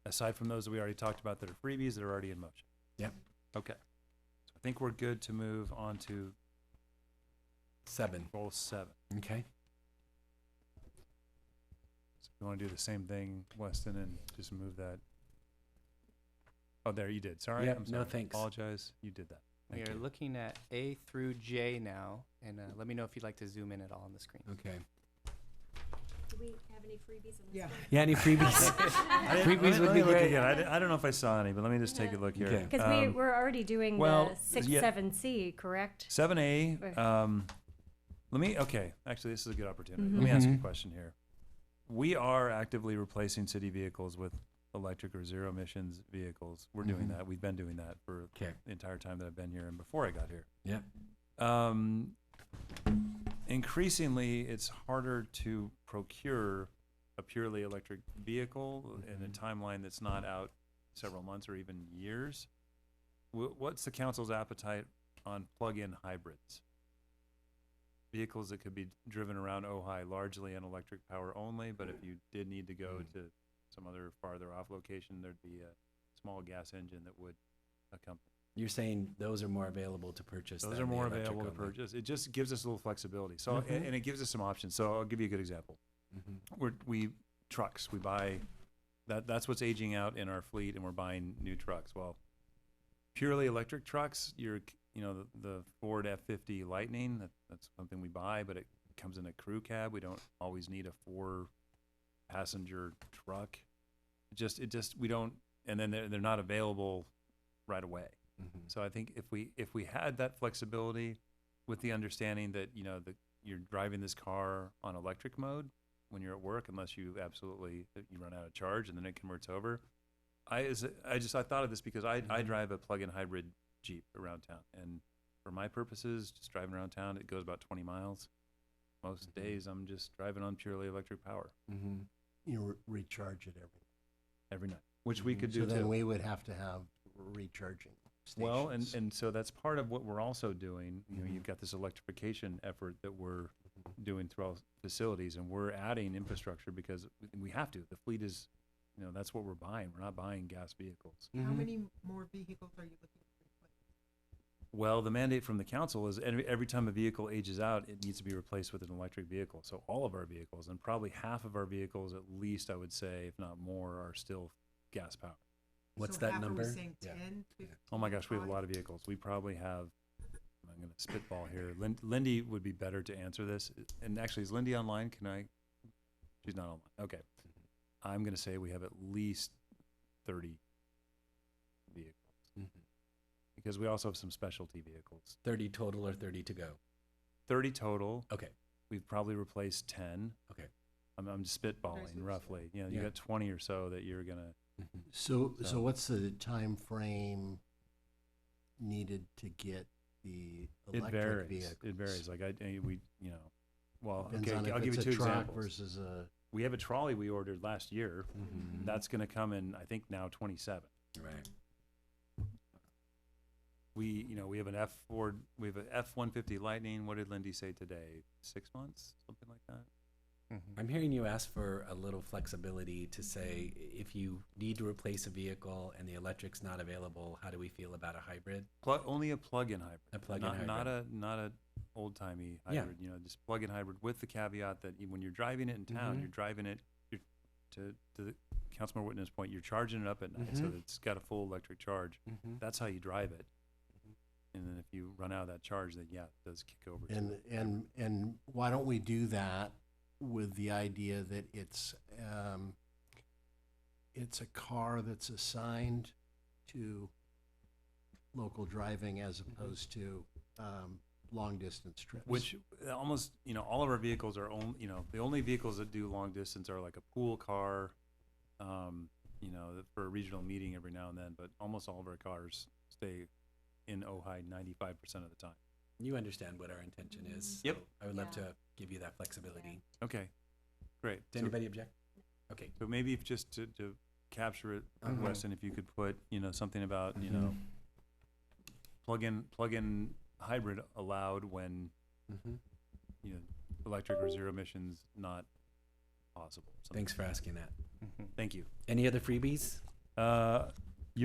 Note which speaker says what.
Speaker 1: aside from those that we already talked about that are freebies that are already in motion?
Speaker 2: Yep.
Speaker 1: Okay. So I think we're good to move on to
Speaker 2: Seven.
Speaker 1: goal seven.
Speaker 2: Okay.
Speaker 1: So you want to do the same thing, Weston, and just move that? Oh, there, you did. Sorry.
Speaker 2: Yep,
Speaker 1: I'm
Speaker 2: no,
Speaker 1: sorry.
Speaker 2: thanks.
Speaker 1: Apologize. You did that.
Speaker 3: We
Speaker 1: Thank
Speaker 3: are
Speaker 1: you.
Speaker 3: looking at A through J now, and uh, let me know if you'd like to zoom in at all on the screen.
Speaker 2: Okay.
Speaker 4: Do we have any freebies on this?
Speaker 5: Yeah.
Speaker 4: one?
Speaker 2: Yeah, any freebies?
Speaker 1: I didn't-
Speaker 2: Freebies
Speaker 1: let me-
Speaker 2: would
Speaker 1: let
Speaker 2: be
Speaker 1: me look
Speaker 2: great.
Speaker 1: again. I di- I don't know if I saw any, but let me just take a look here.
Speaker 2: Okay.
Speaker 6: Because we,
Speaker 1: Um,
Speaker 6: we're already doing
Speaker 1: well,
Speaker 6: the six,
Speaker 1: yeah.
Speaker 6: seven C, correct?
Speaker 1: Seven A,
Speaker 6: Right.
Speaker 1: um, let me, okay, actually, this is a good opportunity. Let me ask you a
Speaker 2: Mhm.
Speaker 1: question here. We are actively replacing city vehicles with electric or zero emissions vehicles. We're doing
Speaker 2: Mhm.
Speaker 1: that. We've been doing that for
Speaker 2: Okay.
Speaker 1: the entire time that I've been here and before I got here.
Speaker 2: Yep.
Speaker 1: Um, increasingly, it's harder to procure a purely electric vehicle in a
Speaker 2: Mhm.
Speaker 1: timeline that's not out several months or even years. Wh- What's the council's appetite on plug-in hybrids? Vehicles that could be driven around Ojai largely on electric power only, but if you did need to go
Speaker 2: Mm.
Speaker 1: to some other farther off location, there'd be a small gas engine that would accompany.
Speaker 2: You're saying those are more available to purchase.
Speaker 1: Those
Speaker 2: than
Speaker 1: are
Speaker 2: the
Speaker 1: more
Speaker 2: electric
Speaker 1: available to
Speaker 2: only.
Speaker 1: purchase. It just gives us a little flexibility. So, a-
Speaker 2: Mhm.
Speaker 1: and it gives us some options. So I'll give you a good example.
Speaker 2: Mhm.
Speaker 1: We're, we, trucks, we buy, that, that's what's aging out in our fleet and we're buying new trucks. Well, purely electric trucks, you're, c- you know, the, the Ford F-50 Lightning, that, that's something we buy, but it comes in a crew cab. We don't always need a four passenger truck. It Just, it just, we don't, and then they're, they're not available right away.
Speaker 2: Mhm.
Speaker 1: So I think if we, if we had that flexibility with the understanding that, you know, that you're driving this car on electric mode when you're at work, unless you absolutely, you run out of charge and then it converts over. I, is, I just, I thought of this because I, I
Speaker 2: Mhm.
Speaker 1: drive a plug-in hybrid Jeep around town. And for my purposes, just driving around town, it goes about twenty miles. Most
Speaker 2: Mhm.
Speaker 1: days, I'm just driving on purely electric power
Speaker 2: Mhm.
Speaker 5: You re- recharge it every.
Speaker 1: every night, which we
Speaker 2: Mhm.
Speaker 1: could do
Speaker 5: So
Speaker 1: too.
Speaker 5: then we would have to have recharging stations.
Speaker 1: Well, and, and so that's part of what we're also doing. You know, you've got this electrification effort that we're doing throughout facilities and we're adding infrastructure because we have to. The fleet is, you know, that's what we're buying. We're not buying gas vehicles.
Speaker 2: Mhm.
Speaker 7: more vehicles are you looking to replace?
Speaker 1: Well, the mandate from the council is every, every time a vehicle ages out, it needs to be replaced with an electric vehicle. So all of our vehicles and probably half of our vehicles, at least I would say, if not more, are still gas powered.
Speaker 2: What's
Speaker 7: So
Speaker 2: that
Speaker 7: half, are we
Speaker 2: number?
Speaker 7: saying
Speaker 2: Yeah.
Speaker 7: 10,
Speaker 2: Yeah.
Speaker 7: 15,
Speaker 1: Oh my gosh, we have a
Speaker 7: five?
Speaker 1: lot of vehicles. We probably have, I'm gonna spitball here. Lin- Lindy would be better to answer this. And actually, is Lindy online? Can I? She's not online. Okay.
Speaker 5: Mm-hmm.
Speaker 1: I'm gonna say we have at least thirty vehicles,
Speaker 5: Mm-hmm.
Speaker 2: Mhm.
Speaker 1: because we also have some specialty vehicles.
Speaker 2: Thirty total or thirty to go?
Speaker 1: Thirty total.
Speaker 2: Okay.
Speaker 1: We've probably replaced ten.
Speaker 2: Okay.
Speaker 1: I'm, I'm spitballing
Speaker 7: so.
Speaker 1: roughly. You know, you
Speaker 2: Yeah.
Speaker 1: got twenty or so that you're gonna,
Speaker 2: Mhm.
Speaker 5: So,
Speaker 1: So-
Speaker 5: so what's the time frame needed to get the
Speaker 1: it
Speaker 5: electric
Speaker 1: varies.
Speaker 5: vehicle?
Speaker 1: It varies. Like I, I- we, you know, well,
Speaker 5: Depends
Speaker 1: okay,
Speaker 5: on
Speaker 1: I'll
Speaker 5: if
Speaker 1: give you
Speaker 5: it's
Speaker 1: two
Speaker 5: a truck
Speaker 1: examples.
Speaker 5: Versus a,
Speaker 1: we have a trolley we ordered last year.
Speaker 2: Mhm.
Speaker 1: That's going to come in, I think, now 27.
Speaker 2: Right.
Speaker 1: We, you know, we have an F Ford, we have an F 150 Lightning. What did Lindy say today? Six months, something like that?
Speaker 2: I'm hearing you ask for a little flexibility to say, if you need to replace a vehicle and the electric's not available, how do we feel about a hybrid?
Speaker 1: Plu- only a plug in hybrid.
Speaker 2: A plug-in
Speaker 1: not, Not a, not a old timey
Speaker 2: Yeah.
Speaker 1: hybrid, you know, just plug in hybrid with the caveat that you- when you're driving it in town,
Speaker 2: Mhm.
Speaker 1: you're driving it, you're, to, to the Councilmember Whitman's point, you're charging it up at night. So
Speaker 2: Mhm.
Speaker 1: that it's got a full electric charge.
Speaker 2: Mm-hmm.
Speaker 1: That's how you drive it. And then if you run out of that charge, then yeah, it does kick over. to
Speaker 5: and, and, and why don't we do that with the idea that it's, um, it's a car that's assigned to local driving as opposed to, um, long distance trips.
Speaker 1: Which uh, almost, you know, all of our vehicles are only, you know, the only vehicles that do long distance are like a pool car, um, you know, th- for a regional meeting every now and then, but almost all of our cars stay in Ojai ninety-five percent of the time.
Speaker 2: You understand what our intention is.
Speaker 1: Yep.
Speaker 2: so I would love
Speaker 4: Yeah.
Speaker 2: to give you that flexibility.
Speaker 1: Okay, great.
Speaker 2: Does
Speaker 1: So-
Speaker 2: anybody object? Okay.
Speaker 1: So maybe if just to, to capture it, uh,
Speaker 2: Mhm.
Speaker 1: Weston, if you could put, you know, something about, you know, plug-in, plug-in hybrid allowed when,
Speaker 2: Mhm.
Speaker 1: you know, electric or zero emissions not possible. something-
Speaker 2: Thanks for asking that.
Speaker 3: Mm-hmm.
Speaker 1: Thank you.
Speaker 2: Any other freebies?
Speaker 1: Uh,